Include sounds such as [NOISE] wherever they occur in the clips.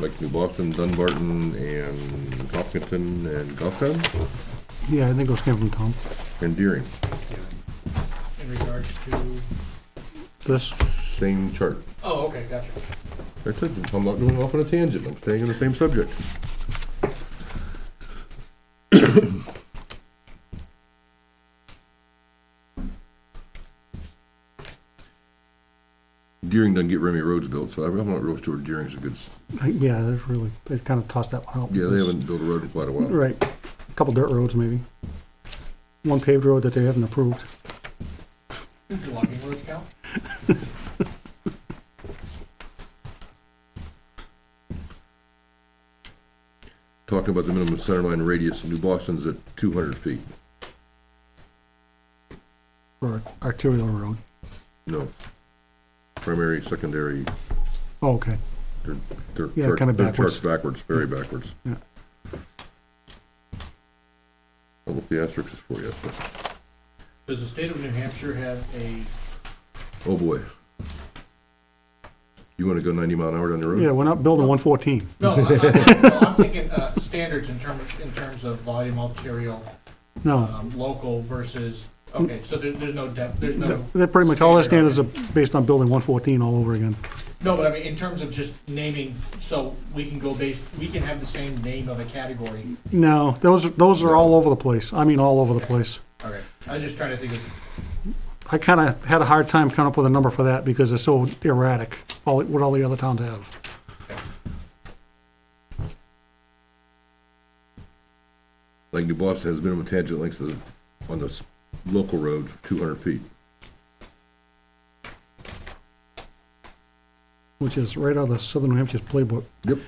Like New Boston, Dunbarton, and Hopkinton, and Goffstown, Yeah, I think those came from Tom. and Deering, in regards to, This, same chart. oh, okay, gotcha. That's it, I'm not going off on a tangent, I'm staying on the same subject. [COUGHS] Deering doesn't get Remy roads built, so I'm not real sure Deering's a good, s- I- yeah, there's really, they've kind of tossed that one out. yeah, they haven't built a road in quite a while. Right, a couple dirt roads maybe. One paved road that they haven't approved. Do logging roads count? Talking about the minimum center line radius, New Boston's at two hundred feet, Or arterial road. no. Primary, secondary, Oh, okay. they're, Yeah, chart- kinda they're backwards. charts backwards, very backwards. Yeah. I'll look the asterisks for you. Does the state of New Hampshire have a, Oh, boy. You wanna go ninety mile an hour down the road? Yeah, we're not building one fourteen. no, I- I- no, I'm thinking uh, standards in terms, in terms of volume arterial, No. um, local versus, okay, so there, there's no depth, there's no, They're pretty much, all their Standard. standards are based on building one fourteen all over again. no, but I mean, in terms of just naming, so we can go based, we can have the same name of a category. No, those, those are all over the place. I mean, all over the place. All right, I was just trying to think of, I kind of had a hard time coming up with a number for that because it's so erratic, all, what all the other towns have. Like New Boston has minimum tangent lengths of, on the s- local road, two hundred feet. which is right out of the Southern New Hampshire's playbook. Yep.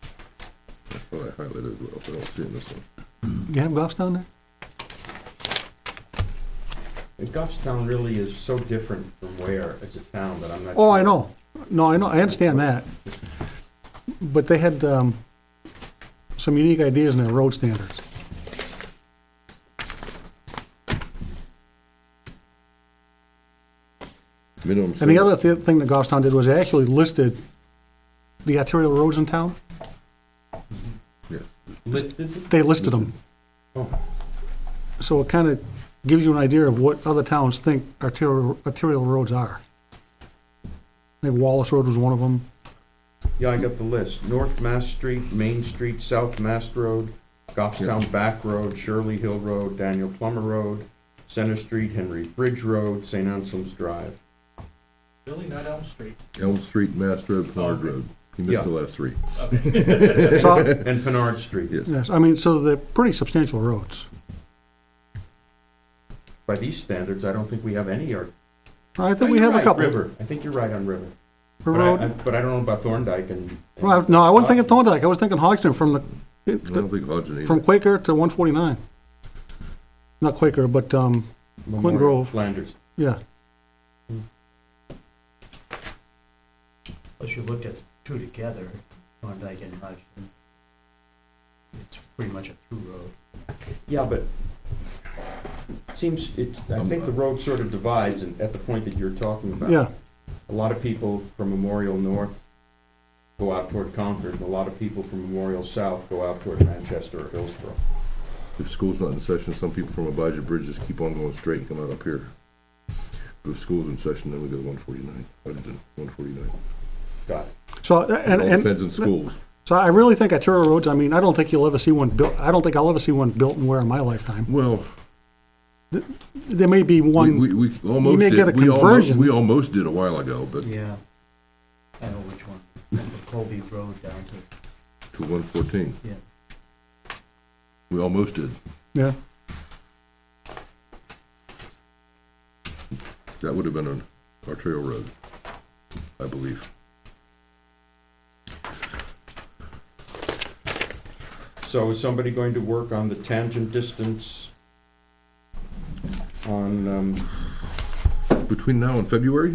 I thought I highlighted as well, but I don't see it in this one. You have golfs down there? And Goffstown really is so different from where it's a town that I'm not. Oh, I sure. know. No, I know, I understand that. But they had, um, some unique ideas in their road standards. Minimum. And the single- other thi- thing that Goffstown did was they actually listed the arterial roads in town. Yeah. Listed? They listed them. Oh, So it kind of gives you an idea of what other towns think arterial, arterial roads are. I think Wallace Road was one of [LAUGHS] them. yeah, I got the list. North Mass Street, Main Street, South Mass Road, Goffstown Back Road, Shirley Hill Road, Daniel Plummer Road, Center Street, Henry Bridge Road, St. Anselm's Drive. really not Elm Street, Elm Street, Mass Road, Pollard Okay. Road. You missed the Yeah. last three. okay, So, And Pinard Street. Yes. yes, I mean, so they're pretty substantial roads. By these standards, I don't think we have any. Or I think we have a couple. River. I think you're right on River. But I, Road- I- but I don't know about Thorndike and. Well, I- no, I wasn't thinking Thorndike, I was thinking Hoxton from I don't the, think Hodgson either. from Quaker to one forty-nine. Not Quaker, but, um, Memorial, Grove. Flanders. yeah, Unless you looked at two together, Thorndike and Hodgson, it's pretty much a through road. Yeah, but it seems, it's, I Um, think the road sort of divides and at the point that you're talking about. yeah, A lot of people from Memorial North go out toward Concord, and a lot of people from Memorial South go out toward Manchester or Hillsborough. If school's not in session, some people from Abijah Bridge just keep on going straight and come out up here. But if school's in session, then we go to one forty-nine, Hudson, one forty-nine. Got it. so, and, All and, feds and schools. so I really think arterial roads, I mean, I don't think you'll ever see one built, I don't think I'll ever see one built and where in my lifetime. Well, There may be we, one, we, we almost may did. get a We almo- conversion. We almost did a while ago, but Yeah. I know which one, from the Colby Road down to, to one fourteen, yeah. we almost did. yeah, That would have been an arterial road, I believe. So is somebody going to work on the tangent distance um, on, um, Between now and February,